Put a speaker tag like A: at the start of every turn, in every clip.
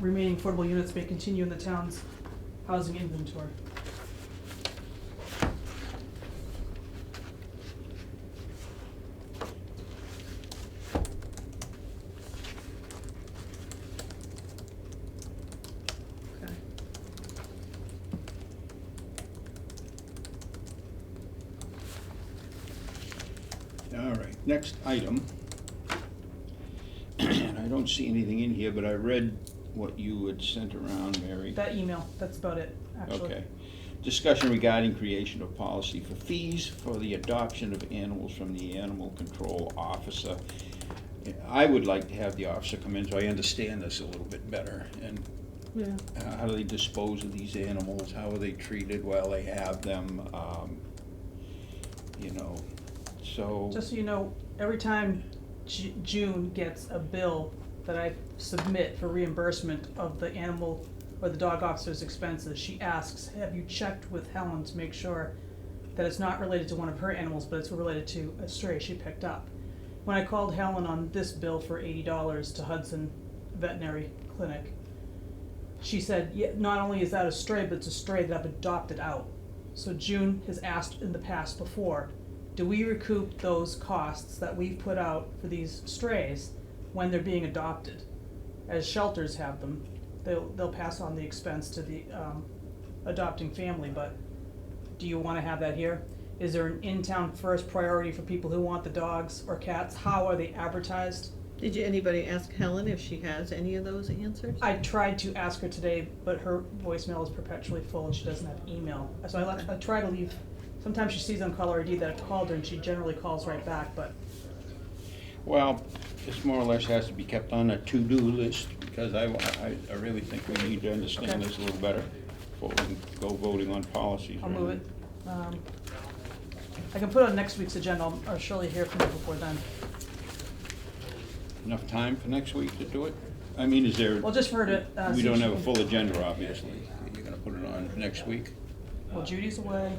A: remaining affordable units may continue in the town's housing inventory.
B: Okay.
C: All right, next item. And I don't see anything in here, but I read what you had sent around, Mary.
A: That email, that's about it, actually.
C: Okay. Discussion regarding creation of policy for fees for the adoption of animals from the animal control officer. I would like to have the officer come in so I understand this a little bit better. And
A: Yeah,
C: uh, how do they dispose of these animals? How are they treated while they have them? Um, You know, so.
A: just so you know, every time Ju- June gets a bill that I submit for reimbursement of the animal or the dog officer's expenses, she asks, have you checked with Helen to make sure that it's not related to one of her animals, but it's related to a stray she picked up? When I called Helen on this bill for eighty dollars to Hudson Veterinary Clinic, she said, yeah, not only is that a stray, but it's a stray that I've adopted out. So June has asked in the past before, do we recoup those costs that we've put out for these strays when they're being adopted? As shelters have them, they'll, they'll pass on the expense to the, um, adopting family, but do you wanna have that here? Is there an in-town first priority for people who want the dogs or cats? How are they advertised?
B: Did you, anybody ask Helen if she has any of those answers?
A: I tried to ask her today, but her voicemail is perpetually full and she doesn't have email. So I left, I try to leave, sometimes she sees on caller ID that I've called her and she generally calls right back, but
C: Well, this more or less has to be kept on a to-do list, because I, I, I really think we need to understand
A: Okay.
C: this a little better before we can go voting on policies.
A: I'll
C: right?
A: move it. Um, I can put it on next week's agenda, I'll- I'll surely hear from you before then.
C: Enough time for next week to do it? I mean, is there?
A: Well, just for her to, uh,
C: We
A: see if
C: don't
A: she
C: have a
A: can-
C: full agenda, obviously. You're gonna put it on next week?
A: Well, Judy's away.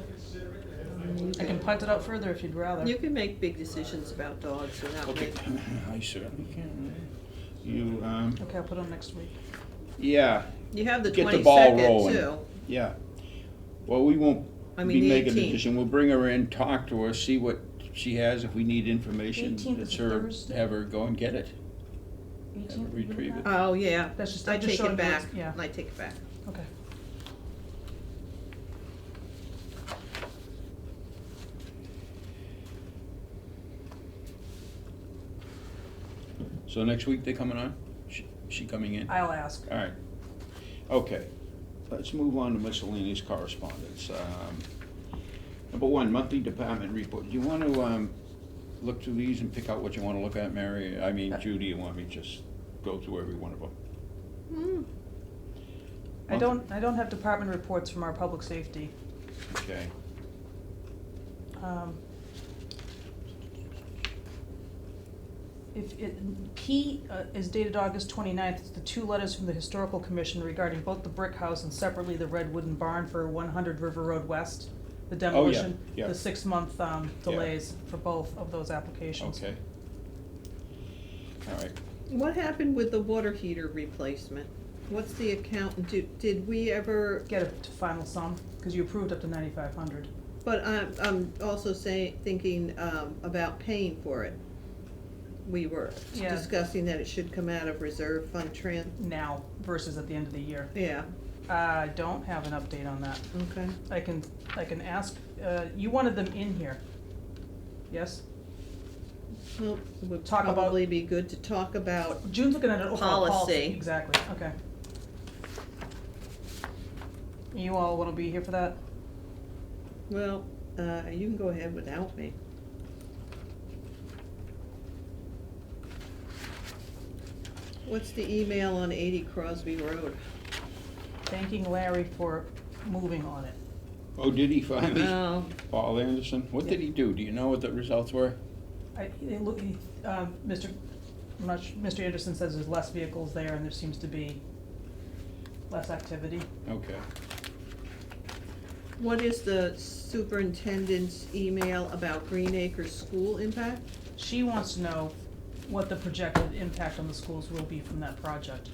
A: I can punt it up further if you'd rather.
B: You can make big decisions about dogs without
C: Okay,
B: making.
C: I certainly can. You, um,
A: Okay, I'll put it on next week.
C: yeah,
B: You have the
C: Get the ball
B: twenty-second
C: rolling.
B: too.
C: yeah. Well, we won't
B: I mean,
C: be
B: the
C: making a
B: 18th.
C: decision. We'll bring her in, talk to her, see what she has, if we need information.
A: 18th is
C: it's
A: a
C: her-
A: Thursday.
C: Have her go and get it.
A: Eighteen,
C: Haven't retrieved it.
B: Oh, yeah.
A: That's just-
B: I
A: I just
B: take
A: showed
B: it
A: you
B: back.
A: what's- yeah.
B: I take it back.
A: Okay.
C: So next week they coming on? She, she coming in?
A: I'll ask.
C: All right. Okay, let's move on to miscellaneous correspondence. Um, Number one, monthly department report. Do you want to, um, look through these and pick out what you want to look at, Mary? I
A: Uh,
C: mean, Judy, you want me to just go through every one of them?
B: Hmm.
A: I don't, I don't have department reports from our public safety.
C: Okay.
A: Um, If it, P uh, is dated August 29th. it's the two letters from the historical commission regarding both the brick house and separately the red wooden barn for one hundred River Road West, the demolition,
C: Oh, yeah.
A: the six-month, um, delays for both of those applications.
C: Okay. All right.
B: What happened with the water heater replacement? What's the account, did, did we ever,
A: Get a t- final sum, cause you approved up to ninety-five hundred.
B: but I'm, I'm also saying, thinking, um, about paying for it. We were
A: Yeah.
B: discussing that it should come out of reserve fund tran,
A: Now versus at the end of the year.
B: yeah,
A: I don't have an update on that.
B: okay.
A: I can, I can ask, uh, you wanted them in here. Yes?
B: Well, it would
A: Talk about-
B: probably be good to talk about,
A: June's looking at an overall policy,
B: Policy.
A: exactly, okay. You all wanna be here for that?
B: well, uh, you can go ahead without me. What's the email on eighty Crosby Road?
A: Thanking Larry for moving on it.
C: Oh, did he finally?
B: Oh,
C: Paul Anderson? What did he do? Do you know what the results were?
A: I, it look, he- um, Mr. Much, Mr. Anderson says there's less vehicles there and there seems to be less activity.
C: Okay.
B: What is the superintendent's email about Green Acres School impact?
A: She wants to know what the projected impact on the schools will be from that project.